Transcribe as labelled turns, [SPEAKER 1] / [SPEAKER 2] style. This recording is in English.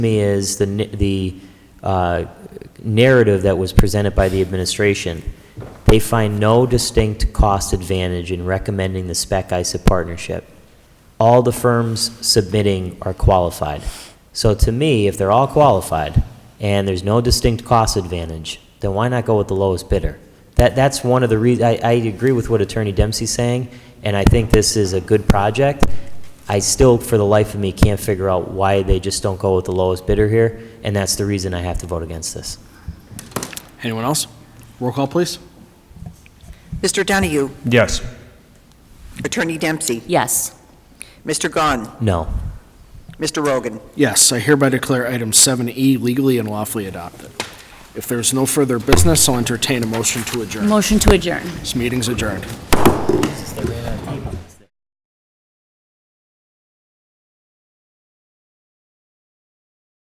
[SPEAKER 1] me is the, n- the uh, narrative that was presented by the administration. They find no distinct cost advantage in recommending the Spec ISA partnership. All the firms submitting are qualified. So to me, if they're all qualified and there's no distinct cost advantage, then why not go with the lowest bidder? That, that's one of the reasons, I, I agree with what Attorney Dempsey's saying, and I think this is a good project. I still, for the life of me, can't figure out why they just don't go with the lowest bidder here, and that's the reason I have to vote against this.
[SPEAKER 2] Anyone else? Roll call, please.
[SPEAKER 3] Mr. Donahue,
[SPEAKER 4] Yes.
[SPEAKER 3] Attorney Dempsey,
[SPEAKER 5] Yes.
[SPEAKER 3] Mr. Gahn,
[SPEAKER 1] No.
[SPEAKER 3] Mr. Rogan.
[SPEAKER 2] Yes, I hereby declare item 7E legally and lawfully adopted. If there's no further business, I'll entertain a motion to adjourn.
[SPEAKER 5] Motion to adjourn.
[SPEAKER 2] This meeting's adjourned.